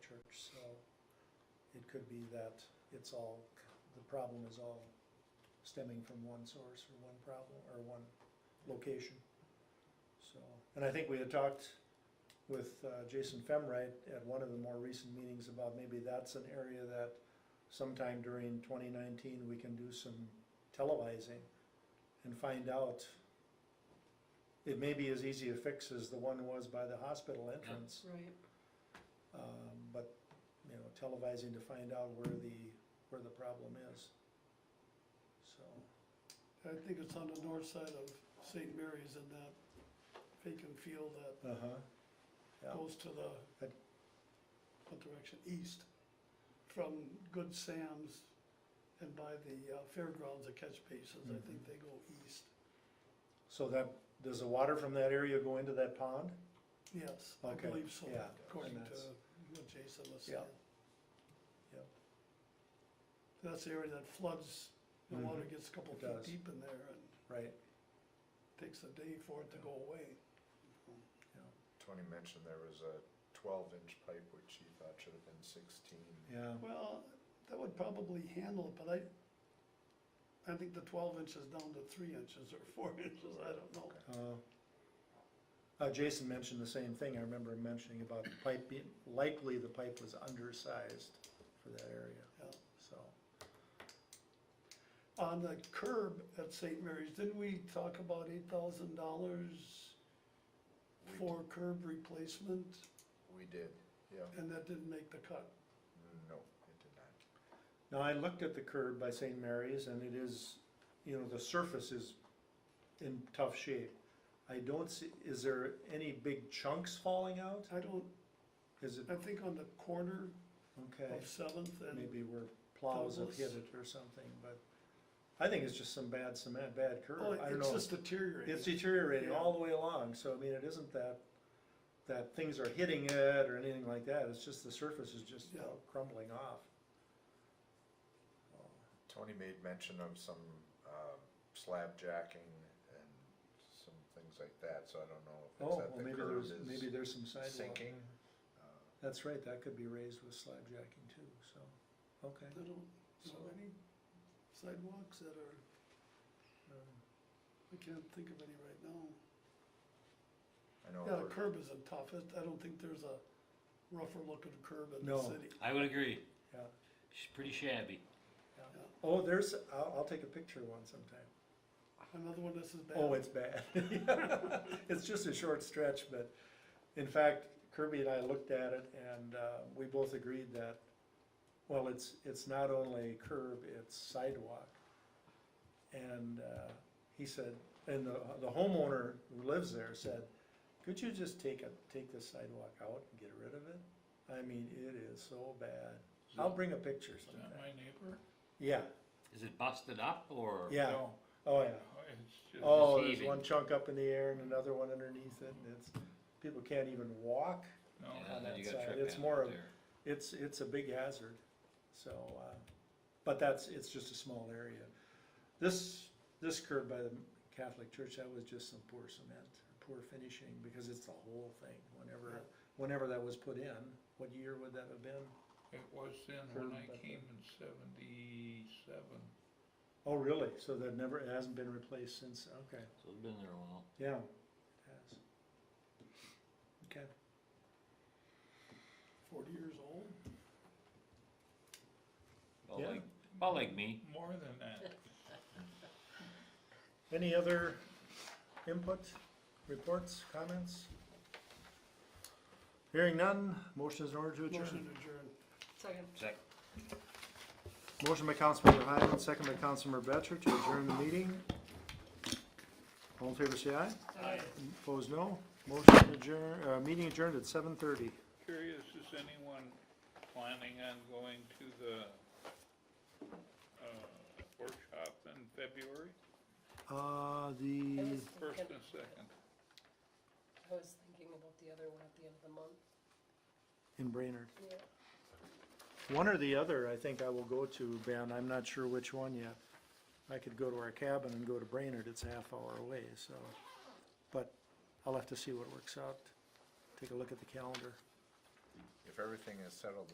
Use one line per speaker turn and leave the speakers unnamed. So it could be that it's all, the problem is all stemming from one source or one problem, or one location. So, and I think we had talked with uh, Jason Femright at one of the more recent meetings about maybe that's an area that sometime during twenty nineteen, we can do some televising and find out. It may be as easy a fix as the one was by the hospital entrance.
Right,
Um, but, you know, televising to find out where the, where the problem is. So,
I think it's on the north side of St. Mary's in that vacant field that
uh-huh, yeah,
goes to the,
That-
what direction, east, from Good Sam's and by the uh, fairgrounds, the catch basins,
Mm-hmm.
I think they go east,
so that, does the water from that area go into that pond?
yes, I
Okay,
believe so,
yeah,
according
and
to
that's-
what Jason was saying.
Yeah, yeah.
That's the area that floods, the water
Mhm,
gets a couple
it
feet
does.
deep in there and
Right,
takes a day for it to go away.
Tony mentioned there was a twelve inch pipe which he thought should have been sixteen.
yeah,
Well, that would probably handle it, but I, I think the twelve inches down to three inches or four inches, I don't know.
uh, uh, Jason mentioned the same thing, I remember him mentioning about the pipe being, likely the pipe was undersized for that area,
Yeah.
so.
On the curb at St. Mary's, didn't we talk about eight thousand dollars
We d-
for curb replacement?
We did, yeah,
And that didn't make the cut.
no, it did not.
Now, I looked at the curb by St. Mary's and it is, you know, the surface is in tough shape. I don't see, is there any big chunks falling out?
I don't,
Is it,
I think on the corner
okay,
of Seventh and,
maybe where plows have hit it or something, but I think it's just some bad cement, bad
oh,
curb, I don't
it's
know.
just deteriorating.
It's deteriorating
Yeah.
all the way along, so I mean, it isn't that, that things are hitting it or anything like that, it's just the surface is just
Yeah.
crumbling off.
Tony made mention of some, um, slab jacking and some things like that, so I don't know if it's
Oh,
that
well,
the
maybe
curb
there's, maybe
is
there's some sidewalk.
sinking. uh,
That's right, that could be raised with slab jacking too, so, okay.
I don't know
So-
any sidewalks that are,
um,
I can't think of any right now.
I know,
Yeah, the
we're-
curb isn't tough, It- I don't think there's a rougher looking curb in the
No.
city.
I would agree.
Yeah.
She's pretty shabby.
Oh, there's, I'll, I'll take a picture one sometime.
Another one that's as bad.
Oh, it's bad. It's just a short stretch, but in fact, Kirby and I looked at it and, uh, we both agreed that, well, it's, it's not only curb, it's sidewalk. And, uh, he said, and the, the homeowner who lives there said, could you just take a, take this sidewalk out and get rid of it? I mean, it is so bad. I'll bring a picture
Is that
sometime.
my neighbor?
Yeah,
Is it busted up or?
yeah,
No,
oh yeah.
it's just-
Oh, there's
heaving.
one chunk up in the air and another one underneath it, and it's, people can't even walk.
no,
Yeah,
on
then
that
you got
side.
trip
It's
hazard
more of-
there.
It's, it's a big hazard, so, uh, but that's, it's just a small area. This, this curb by the Catholic Church, that was just some poor cement, poor finishing, because it's the whole thing, whenever, whenever that was put in, what year would that have been?
It was then when I
Curb, but
came in seventy-seven.
Oh, really? So that never, it hasn't been replaced since, okay,
So it's been there a while.
yeah, it has. Okay.
Forty years old?
About
Yeah.
like, about like me.
More than that.
Any other input, reports, comments? Hearing none, motion is in order to
Motion
adjourn.
to adjourn.
second.
Second.
Motion by Councilmember Highland, second by Councilmember Batchor to adjourn the meeting. All in favor, say aye.
Aye.
Opposed, no. Motion adjourn, uh, meeting adjourned at seven thirty.
Curious, is anyone planning on going to the, uh, workshop in February,
Uh,
I
the,
was
first
thinking,
and second?
I was thinking about the other one at the end of the month,
in Brainerd.
yeah.
One or the other, I think I will go to, Ben. I'm not sure which one yet. I could go to our cabin and go to Brainerd. It's a half hour away, so. But I'll have to see what works out. Take a look at the calendar.
if everything is settled